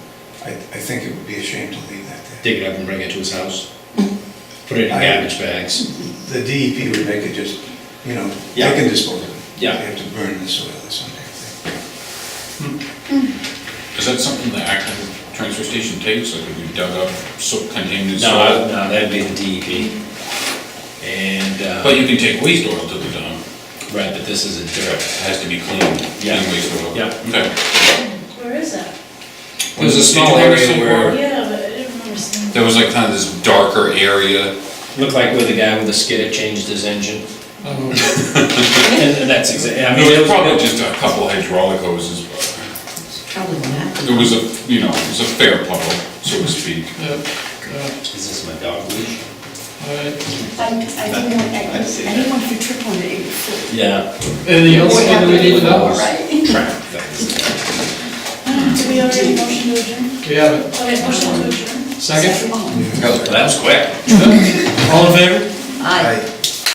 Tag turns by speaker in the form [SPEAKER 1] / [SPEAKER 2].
[SPEAKER 1] I, I think it would be a shame to leave that there.
[SPEAKER 2] dig it up and bring it to his house, put it in
[SPEAKER 1] I-
[SPEAKER 2] garbage bags.
[SPEAKER 1] The DEP would make it just, you know, they
[SPEAKER 2] Yeah.
[SPEAKER 1] can dispose of it.
[SPEAKER 2] Yeah.
[SPEAKER 1] They have to burn the soil or something.
[SPEAKER 3] Is that something the Acton transfer station takes, like if you dug up soap contaminated
[SPEAKER 2] No, I-
[SPEAKER 3] soil?
[SPEAKER 2] no, that'd be the DEP. And, uh,
[SPEAKER 3] But you can take waste oil to the dump,
[SPEAKER 2] right, but this is a
[SPEAKER 3] it
[SPEAKER 2] dirt.
[SPEAKER 3] has to be clean, clean
[SPEAKER 2] Yeah.
[SPEAKER 3] waste oil.
[SPEAKER 2] Yeah.
[SPEAKER 3] Okay.
[SPEAKER 4] Where is that?
[SPEAKER 2] There's a
[SPEAKER 3] Did
[SPEAKER 2] small
[SPEAKER 3] you ever
[SPEAKER 2] area
[SPEAKER 3] see
[SPEAKER 2] where,
[SPEAKER 4] Yeah, but I didn't remember seeing.
[SPEAKER 3] There was like kind of this darker area.
[SPEAKER 2] looked like where the guy with the skidder changed his engine. And and that's exactly, I
[SPEAKER 3] It
[SPEAKER 2] mean, it
[SPEAKER 3] was
[SPEAKER 2] was.
[SPEAKER 3] Oh. probably just a couple hydraulic hoses, but
[SPEAKER 5] Probably not.
[SPEAKER 3] it was a, you know, it was a fair puddle, so to speak.
[SPEAKER 2] Is this my dog leash?
[SPEAKER 5] I, I didn't want, I, I didn't want you to trip on it, it would flip.
[SPEAKER 2] Yeah.
[SPEAKER 6] Anything else
[SPEAKER 5] What
[SPEAKER 6] that we
[SPEAKER 5] happened
[SPEAKER 6] need to know?
[SPEAKER 5] before, Right?
[SPEAKER 2] Trap things.
[SPEAKER 4] Do we already motion to adjourn?
[SPEAKER 6] We have it.
[SPEAKER 4] Okay, motion to adjourn.
[SPEAKER 6] Second?
[SPEAKER 5] Oh.
[SPEAKER 2] Well, that was quick.
[SPEAKER 6] All in favor?
[SPEAKER 5] Aye.
[SPEAKER 1] Right.